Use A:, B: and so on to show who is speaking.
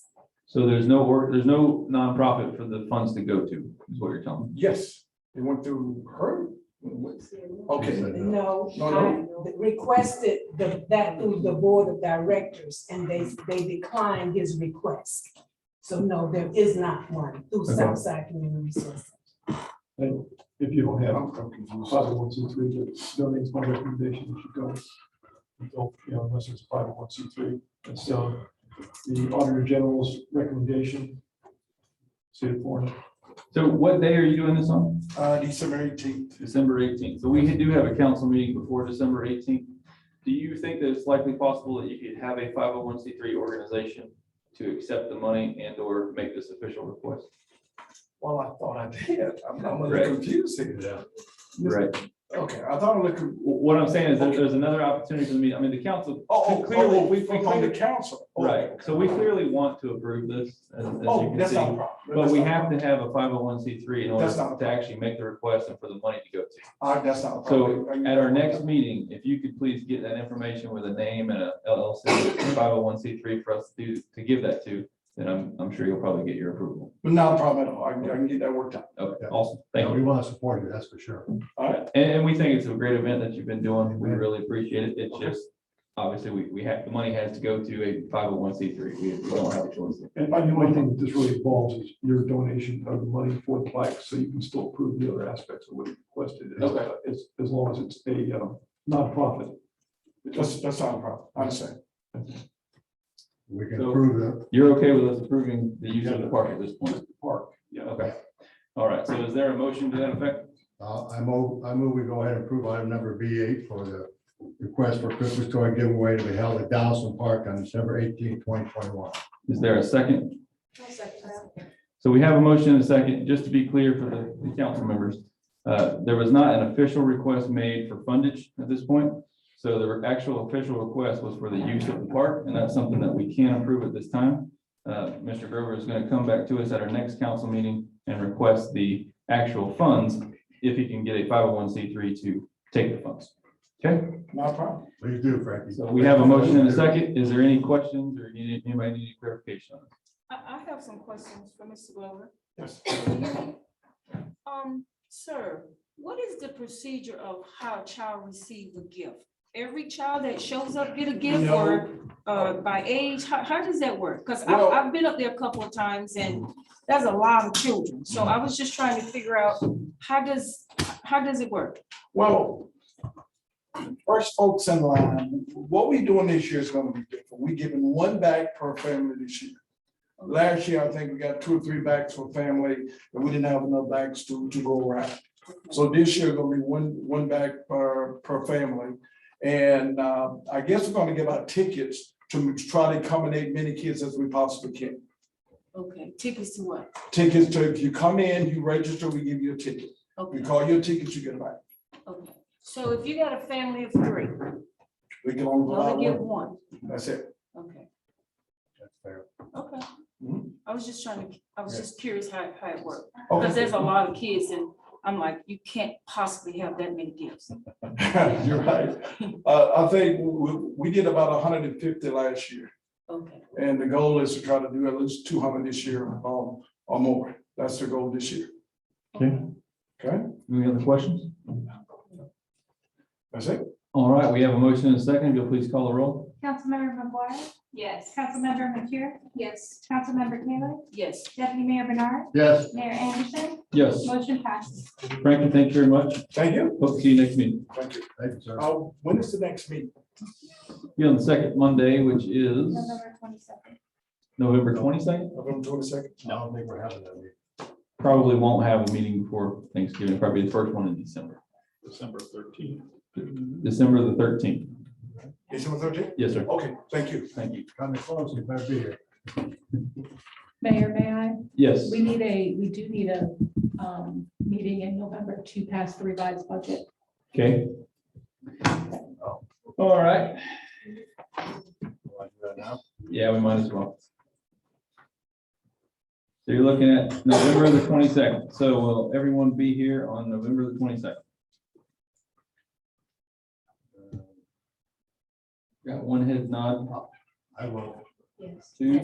A: So there's no work, there's no nonprofit for the funds to go to, is what you're telling me.
B: Yes, it went through her? What- Okay,
C: No,
B: No, no.
C: I requested the- that through the board of directors and they, they declined his request. So no, there is not one through
A: Okay.
C: Southside Community Resources.
D: If you don't have
B: I'm I'm confused.
D: five oh one C three, that donates my recommendation, you should go. Don't, you know, unless it's five oh one C three, and so the Auditor General's recommendation. See it for, it.
A: So what day are you doing this on?
B: Uh, December eighteenth,
A: December eighteenth. So we do have a council meeting before December eighteenth. Do you think that it's likely possible that you could have a five oh one C three organization to accept the money and or make this official request?
B: well, I thought I did, I'm, I'm a
A: Right.
B: little confused here.
A: Right.
B: Okay, I thought I looked.
A: Wh- What I'm saying is that there's another opportunity for me, I mean, the council.
B: Oh,
A: clearly,
B: oh,
A: we-
B: we,
A: we
B: from
A: clearly-
B: the council. Oh,
A: Right, so we clearly want to approve this, as, as you
B: Oh,
A: can
B: that's not a
A: see.
B: problem.
A: But we have to have a five oh one C three in order
B: That's not-
A: to actually make the request and for the money to go to.
B: All right, Ah, that's not a
A: So
B: problem. Are you-
A: at our next meeting, if you could please get that information with a name and a LLC, five oh one C three for us to, to give that to, then I'm, I'm sure you'll probably get your approval.
B: Not a problem at all, I can, I can get that worked out.
A: Okay,
E: Yeah.
A: awesome, thank
E: Yeah,
A: you.
E: we want to support you, that's for sure.
B: All right,
A: And, and we think it's a great event that you've been doing. We
E: Amen.
A: really appreciate it. It's
B: Okay.
A: just, obviously, we, we have, the money has to go to a five oh one C three. We we don't have a choice.
D: and I mean, one thing that this really involves is your donation of money for the plaque, so you can still approve the other aspects of what you requested. as-
B: Okay.
D: As, as long as it's a uh, nonprofit.
B: that's, that's not a problem, I understand.
E: We can
A: So-
E: approve that.
A: You're okay with us approving the use of the park at this point?
D: Park,
A: Yeah. Okay. All right. So is there a motion to that effect?
E: Uh, I move, I move we go ahead and approve item number B eight for the request for Christmas toy giveaway to be held at Donaldson Park on December eighteenth, twenty twenty-one.
A: Is there a second? So we have a motion and a second. Just to be clear for the, the council members, uh, there was not an official request made for fundage at this point. So the actual official request was for the use of the park, and that's something that we can approve at this time. Uh, Mr. Grover is gonna come back to us at our next council meeting and request the actual funds if he can get a five oh one C three to take the funds.
B: Not a problem.
E: Please do, Frankie.
A: So we have a motion and a second. Is there any questions or any- anybody need any clarification? on this?
F: I, I have some questions for Mr. Glover.
B: Yes.
F: Um, sir, what is the procedure of how a child receives a gift? Every child that shows up get a gift or, uh, by age, how, how does that work? Cause I,
B: Well-
F: I've been up there a couple of times and there's a lot of children, so I was just trying to figure out, how does, how does it work?
B: Well, first folks in line, what we doing this year is gonna be different. We giving one bag per family this year. Last year, I think we got two or three bags for family, and we didn't have enough bags to, to go around. So this year gonna be one, one bag per, per family. And, uh, I guess we're gonna give out tickets to try to accommodate many kids as we possibly can.
F: Okay, tickets to what?
B: Tickets to, if you come in, you register, we give you a ticket. You
F: Okay,
B: call your ticket, you get a bag.
F: okay. So if you got a family of three,
B: We can only
F: you
B: allow
F: only get
B: one,
F: one,
B: that's it.
F: okay.
E: That's fair. Hmm?
F: Okay.
B: Mhm.
F: I was just trying to, I was
E: Yeah.
F: just curious how, how it worked,
B: Okay.
F: because there's a lot of kids and I'm like, you can't possibly have that many gifts.
B: You're right. Uh, I think we, we did about hundred and fifty last year,
F: Okay,
B: and the goal is to try to do at least two hundred this year, um, or more. That's the goal this year.
A: Any other questions?
B: That's it.
A: All right, we have a motion and a second. You'll please call the roll.
G: Councilmember McGuire,
F: yes.
G: Councilmember McCure. Yes. Councilmember Taylor,
F: Yes,
G: Deputy Mayor Bernard,
E: Yes,
G: Mayor Anderson,
A: Yes,
G: motion passes.
A: Frankie, thank you very much.
B: Thank you.
A: Hope to see you next meeting.
B: Thank you.
E: thank you, sir.
B: Uh, when is the next meeting?
A: Be on the second Monday, which is
G: November twenty-second.
A: November twenty-second.
B: November twenty-second?
E: I don't think we're having that meeting.
A: Probably won't have a meeting before Thanksgiving, probably the first one in December,
D: December thirteenth.
A: December the thirteenth.
B: December thirteenth?
A: Yes, sir.
B: Okay, thank you.
A: Thank you.
E: Coming close, you better be here.
H: Mayor, may I?
A: Yes,
H: We need a, we do need a um, meeting in November to pass the revised budget.
A: okay. All right,
E: Want to do that now?
A: yeah, we might as well. So you're looking at November the twenty-second. So will everyone be here on November the twenty-second? Got one head nod,
E: I will.
F: yes.
A: two.